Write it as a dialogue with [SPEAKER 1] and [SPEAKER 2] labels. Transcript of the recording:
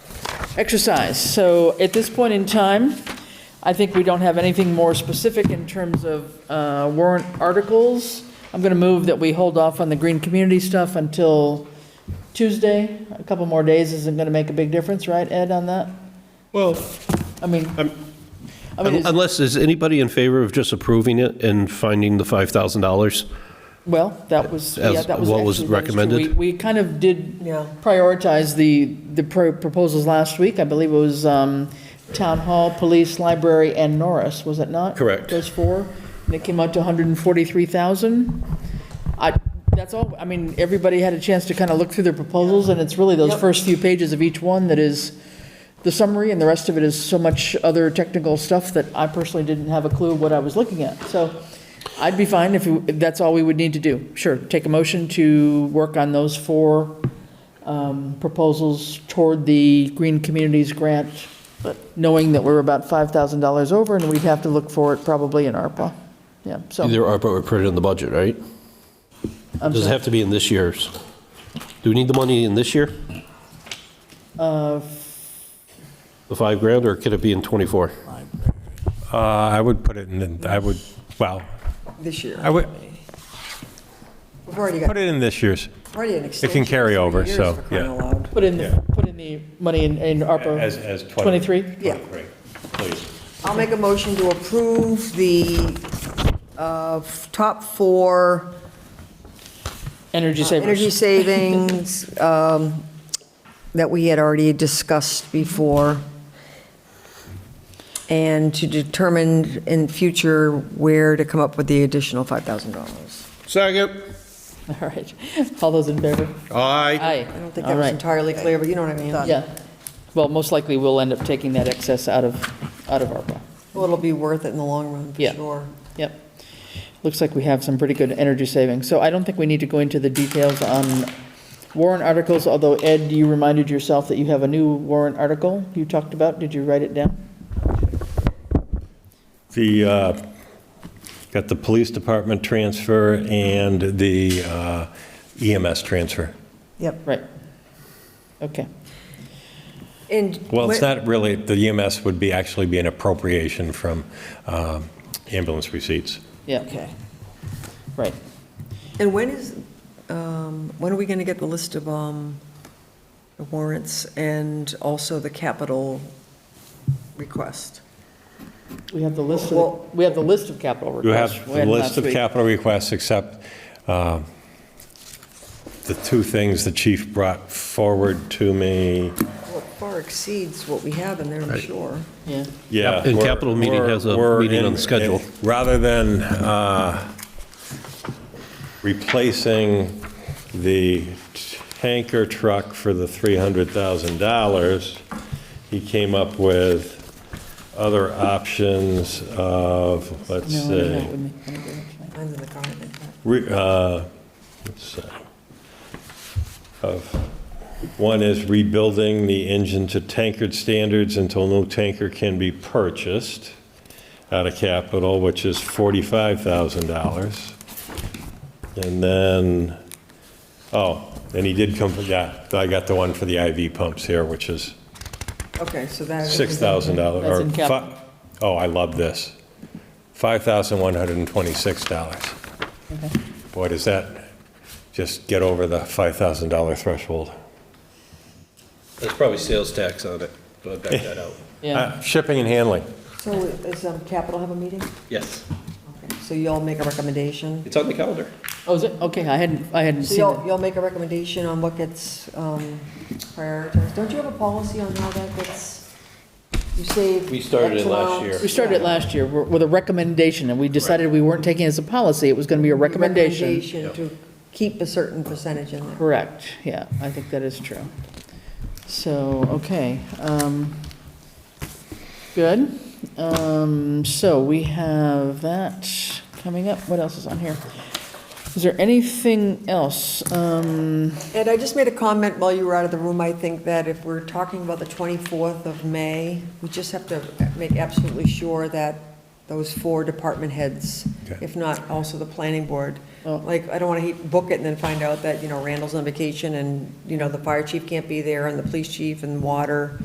[SPEAKER 1] exercise. So at this point in time, I think we don't have anything more specific in terms of uh, warrant articles. I'm going to move that we hold off on the green community stuff until Tuesday. A couple more days isn't going to make a big difference, right, Ed, on that?
[SPEAKER 2] Well,
[SPEAKER 1] I mean,
[SPEAKER 2] I'm-
[SPEAKER 1] I mean, it's-
[SPEAKER 2] unless, is anybody in favor of just approving it and finding the $5,000?
[SPEAKER 1] well, that was, yeah,
[SPEAKER 2] As-
[SPEAKER 1] that was
[SPEAKER 2] what was
[SPEAKER 1] actually that true.
[SPEAKER 2] recommended?
[SPEAKER 1] We we kind of did
[SPEAKER 3] Yeah.
[SPEAKER 1] prioritize the, the pro- proposals last week. I believe it was um, Town Hall, Police, Library, and Norris, was it not?
[SPEAKER 2] Correct.
[SPEAKER 1] Those four, and it came out to 143,000. I, that's all, I mean, everybody had a chance to kind of look through their proposals, and it's really those
[SPEAKER 3] Yep.
[SPEAKER 1] first few pages of each one that is the summary, and the rest of it is so much other technical stuff that I personally didn't have a clue what I was looking at. So I'd be fine if, you- if that's all we would need to do. Sure, take a motion to work on those four um, proposals toward the Green Communities Grant, but knowing that we're about $5,000 over, and we'd have to look for it probably in ARPA. Yeah, so.
[SPEAKER 2] Either ARPA or put it in the budget, right?
[SPEAKER 1] I'm
[SPEAKER 2] Does it
[SPEAKER 1] sorry.
[SPEAKER 2] have to be in this year's? Do we need the money in this year?
[SPEAKER 1] Uh,
[SPEAKER 2] The five grand, or could it be in '24?
[SPEAKER 4] Uh, I would put it in, I would, well,
[SPEAKER 3] this year.
[SPEAKER 4] I would-
[SPEAKER 3] We've already got,
[SPEAKER 4] put it in this year's.
[SPEAKER 3] already an
[SPEAKER 4] It
[SPEAKER 3] extension.
[SPEAKER 4] can carry over,
[SPEAKER 3] Years
[SPEAKER 4] so,
[SPEAKER 3] for crying
[SPEAKER 4] yeah.
[SPEAKER 3] out loud.
[SPEAKER 1] Put in, the put in the money in, in ARPA.
[SPEAKER 5] As, as 20.
[SPEAKER 1] 23?
[SPEAKER 3] Yeah.
[SPEAKER 5] Right, please.
[SPEAKER 3] I'll make a motion to approve the uh, f- top four
[SPEAKER 1] Energy
[SPEAKER 3] Uh, energy
[SPEAKER 1] savers.
[SPEAKER 3] savings um, that we had already discussed before, and to determine in future where to come up with the additional $5,000.
[SPEAKER 2] Second.
[SPEAKER 1] All right. All those in favor?
[SPEAKER 2] Aye.
[SPEAKER 1] Aye.
[SPEAKER 3] I don't think
[SPEAKER 1] All
[SPEAKER 3] that was
[SPEAKER 1] right.
[SPEAKER 3] entirely clear, but you know what I mean?
[SPEAKER 1] Yeah. Well, most likely we'll end up taking that excess out of, out of ARPA.
[SPEAKER 3] Well, it'll be worth it in the long run, for
[SPEAKER 1] Yeah.
[SPEAKER 3] sure.
[SPEAKER 1] Yep. Looks like we have some pretty good energy savings. So I don't think we need to go into the details on warrant articles, although Ed, you reminded yourself that you have a new warrant article you talked about. Did you write it down?
[SPEAKER 4] The, uh,
[SPEAKER 5] Got the police department transfer and the uh, EMS transfer.
[SPEAKER 3] Yep.
[SPEAKER 1] Right. Okay.
[SPEAKER 3] And.
[SPEAKER 5] Well, it's
[SPEAKER 3] when-
[SPEAKER 5] not really, the EMS would be, actually be an appropriation from um, ambulance receipts.
[SPEAKER 1] Yeah,
[SPEAKER 3] Okay.
[SPEAKER 1] right.
[SPEAKER 3] And when is, um, when are we going to get the list of um, the warrants and also the capital request?
[SPEAKER 1] We have the list of,
[SPEAKER 3] Well-
[SPEAKER 1] the- we have the list of capital
[SPEAKER 5] You
[SPEAKER 1] requests.
[SPEAKER 5] have
[SPEAKER 1] We
[SPEAKER 5] the
[SPEAKER 1] had
[SPEAKER 5] list
[SPEAKER 1] last
[SPEAKER 5] of
[SPEAKER 1] week.
[SPEAKER 5] capital requests, except um, the two things the chief brought forward to me.
[SPEAKER 3] Well, it far exceeds what we have in there, I'm sure.
[SPEAKER 1] Yeah.
[SPEAKER 5] Yeah.
[SPEAKER 2] And
[SPEAKER 5] we're-
[SPEAKER 2] capital meeting has a
[SPEAKER 5] we're- we're
[SPEAKER 2] meeting on
[SPEAKER 5] in-
[SPEAKER 2] the schedule.
[SPEAKER 5] Rather than uh, replacing the tanker truck for the $300,000, he came up with other options of, let's
[SPEAKER 1] No, no,
[SPEAKER 5] see,
[SPEAKER 1] no, with me. Let me do it.
[SPEAKER 3] Mine's in the car, I think.
[SPEAKER 5] re- uh, let's see, of, one is rebuilding the engine to tankard standards until no tanker can be purchased out of capital, which is $45,000. And then, oh, and he did come, yeah, I got the one for the IV pumps here, which is
[SPEAKER 3] Okay, so that.
[SPEAKER 5] $6,000.
[SPEAKER 1] That's
[SPEAKER 5] or
[SPEAKER 1] in
[SPEAKER 5] fi-
[SPEAKER 1] capital.
[SPEAKER 5] Oh, I love this. $5,126. Boy, does that just get over the $5,000 threshold.
[SPEAKER 2] There's probably sales tax on it, but I back that out.
[SPEAKER 1] Yeah,
[SPEAKER 5] Uh, Shipping and handling.
[SPEAKER 3] So is um, capital have a meeting?
[SPEAKER 2] Yes,
[SPEAKER 3] Okay, So y'all make a recommendation?
[SPEAKER 2] it's on the calendar.
[SPEAKER 1] oh, is it, okay, I hadn't, I hadn't
[SPEAKER 3] So
[SPEAKER 1] seen
[SPEAKER 3] y'all,
[SPEAKER 1] it.
[SPEAKER 3] y'all make a recommendation on what gets um, prioritized? Don't you have a policy on how that gets, you save?
[SPEAKER 2] We started
[SPEAKER 3] X
[SPEAKER 2] it last
[SPEAKER 3] amount?
[SPEAKER 2] year.
[SPEAKER 1] We started it last year w- with a recommendation, and we decided we weren't taking it as a policy, it was going to be a recommendation.
[SPEAKER 3] recommendation to keep a certain percentage in there.
[SPEAKER 1] Correct, yeah, I think that is true. So, okay, um, good. Um, so we have that coming up, what else is on here? Is there anything else? Um,
[SPEAKER 3] And I just made a comment while you were out of the room, I think that if we're talking about the 24th of May, we just have to make absolutely sure that those four department heads,
[SPEAKER 5] Okay.
[SPEAKER 3] if not also the planning board,
[SPEAKER 1] Oh.
[SPEAKER 3] like, I don't want to book it and then find out that, you know, Randall's on vacation and, you know, the fire chief can't be there and the police chief and water.